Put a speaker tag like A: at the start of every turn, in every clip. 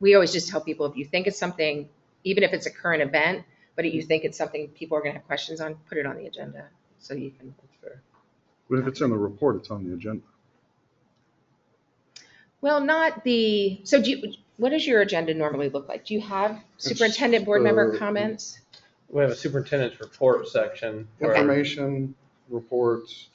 A: we always just tell people, if you think it's something, even if it's a current event, but if you think it's something people are gonna have questions on, put it on the agenda, so you can.
B: But if it's in the report, it's on the agenda.
A: Well, not the, so do you, what does your agenda normally look like? Do you have superintendent board member
B: uh,
A: comments?
C: We have a superintendent's report section where
B: Information, reports,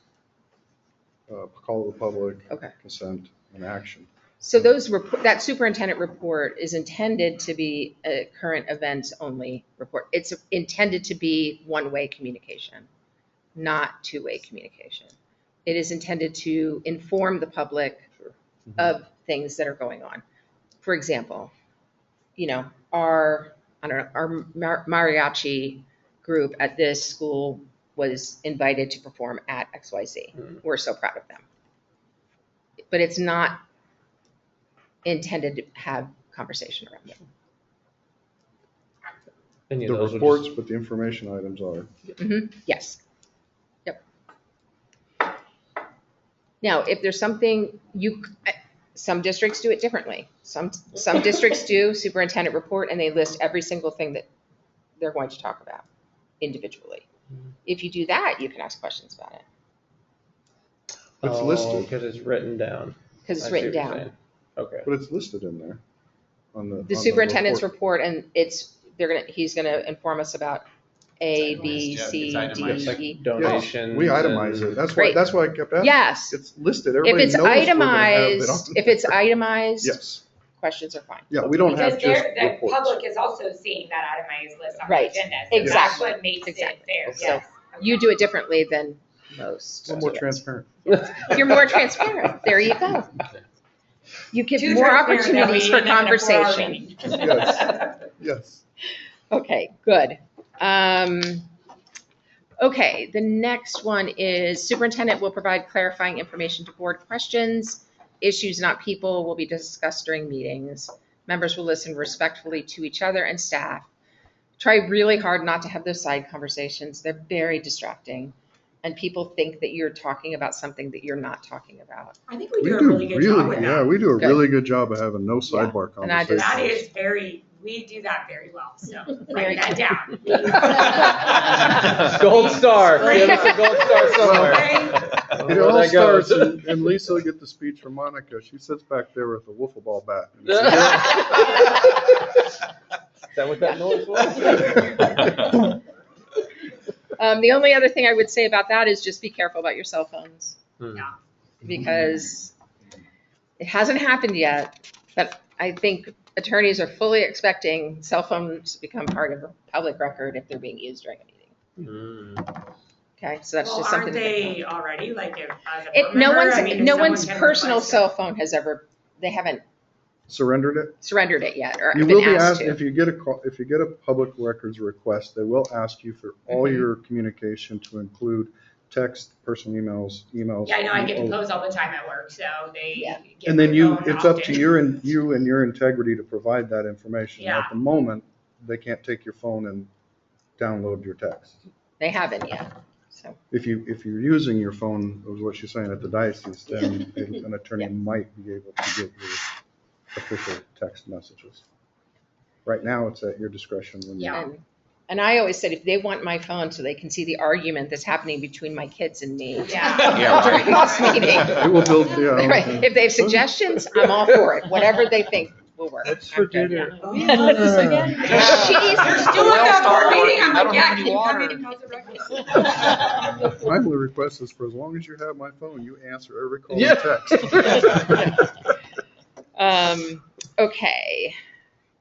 B: uh, call to the public,
A: Okay.
B: consent, and action.
A: So those, rep- that superintendent report is intended to be a current events only report. It's intended to be one-way communication, not two-way communication. It is intended to inform the public of things that are going on. For example, you know, our, I don't know, our mar- mariachi group at this school was invited to perform at
C: Hmm.
A: XYZ. We're so proud of them. But it's not intended to have conversation around it.
C: any
B: The
C: of those. would
B: reports, but the information items are.
C: Mm-hmm.
A: Mhm, Yes. Yep. Now, if there's something you, I- some districts do it differently. Some, some districts do superintendent report and they list every single thing that they're going to talk about individually.
C: Mm-hmm.
A: If you do that, you can ask questions about it
B: It's listed,
C: Because it's written down.
A: because it's
C: I see
A: written
C: what you're
A: down.
C: saying. Okay.
B: but it's listed in there on the. on
A: The superintendent's
B: report.
A: report and it's, they're gonna, he's gonna inform us about A, B, C,
C: It's
A: D, E.
C: like donations.
B: We itemize it.
C: and-
B: That's why,
A: Great.
B: that's why I kept asking.
A: Yes.
B: It's listed.
A: If
B: Everybody
A: it's
B: knows we're gonna have it
A: itemized,
B: on
A: if it's itemized,
B: Yes.
A: questions are fine.
B: Yeah, we don't have
D: Because
B: just
D: they're- the
B: reports.
D: public is also seeing that itemized list on the
A: Right.
D: agenda. so That's
A: Exactly.
D: what makes it
A: Exactly.
D: fair,
A: So
D: yes.
A: You do it differently than most.
B: We're more transparent.
A: You're more transparent. There you go. You give
D: Too
A: more
D: transparent that
A: opportunities
D: we
A: for
D: end up in a four-hour
A: conversation.
D: meeting.
B: Yes. Yes.
A: Okay, good. Um, okay, the next one is superintendent will provide clarifying information to board questions. Issues, not people, will be discussed during meetings. Members will listen respectfully to each other and staff. Try really hard not to have those side conversations. They're very distracting. And people think that you're talking about something that you're not talking about.
D: I think we
B: We
D: do a really
B: do
D: good job
B: really,
D: with
B: yeah,
D: that.
B: we do a
A: Good.
B: really good job of having no
A: Yeah.
B: sidebar
A: And I just-
D: That
B: conversations.
D: is very, we do that very well, so
A: Very
D: write that down.
C: Gold star. Give us a gold star somewhere.
B: It
C: Where
B: all
C: that goes.
B: starts, and and Lisa will get the speech from Monica. She sits back there with a wiffle ball bat. And it's like,
C: Is that what that noise was?
A: Um, the only other thing I would say about that is just be careful about your cell phones.
C: Hmm.
D: Yeah.
A: Because it hasn't happened yet, but I think attorneys are fully expecting cell phones to become part of the public record if they're being used during a meeting.
C: Mm.
A: Okay, so that's
D: Well,
A: just something.
D: aren't
A: to think
D: they already, like, if, as a
A: about. It,
D: board
A: no
D: member, I mean,
A: one's,
D: if
A: no
D: someone
A: one's
D: can
A: personal
D: request it-
A: cell phone has ever, they haven't
B: Surrendered it.
A: surrendered it yet or
B: You will
A: been
B: be
A: asked
B: asked,
A: to.
B: if you get a, call- if you get a public records request, they will ask you for all
D: Mm-hmm.
A: Mhm.
B: your communication to include text, personal emails, emails.
D: Yeah, I know, I get
B: all-
D: proposed all the time at work, so they.
A: Yeah.
D: get
B: Oh. And then you,
D: their phone
B: it's up to
D: often.
B: your, in- you and your integrity to provide that information.
D: Yeah.
B: At the moment, they can't take your phone and download your text.
A: They haven't yet, so.
B: If you, if you're using your phone, was what she's saying at the diocese, then an an attorney might be able to give you official text messages. Right now, it's at your discretion when you.
D: Yeah.
A: And, and I always said, if they want my phone so they can see the argument that's happening between my kids and me.
D: Yeah.
E: Yeah, right.
A: During this meeting.
B: It will build, uh, yeah.
A: Right, if they have suggestions, I'm all for it, whatever they think will work.
B: That's for
A: I'm good.
B: dinner.
D: Oh,
A: yeah, no, this
B: again.
D: You're
A: Jeez.
D: still
E: Well,
D: at the
E: Star
D: board
E: Wars,
D: meeting, I'm
E: I
D: like,
E: don't
D: yeah,
E: have any
D: keep
E: water.
D: coming, how's the breakfast?
B: My only request is for as long as you have my phone, you answer every call
C: Yeah.
B: and text.
A: Um, okay.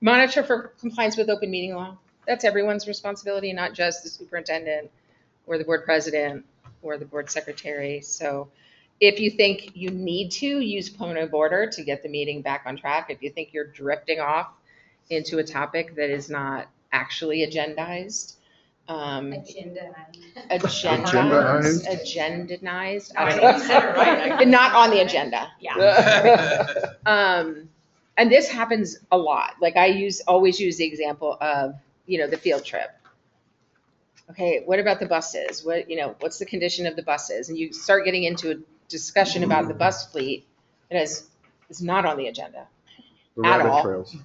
A: Monitor for compliance with open meeting law. That's everyone's responsibility, not just the superintendent or the board president or the board secretary. So if you think you need to, use Pono Border to get the meeting back on track. If you think you're drifting off into a topic that is not actually agendized, um,
D: Agenda.
A: agendized, agendized, I
D: I
A: don't
D: think
A: know.
D: you said it right. I-
A: not on the agenda.
D: Yeah.
A: Um, and this happens a lot. Like I use, always use the example of, you know, the field trip. Okay, what about the buses? What, you know, what's the condition of the buses? And you start getting into a discussion about the bus fleet. It is, it's not on the agenda.
B: The
A: At
B: rabbit
A: all.
B: trails.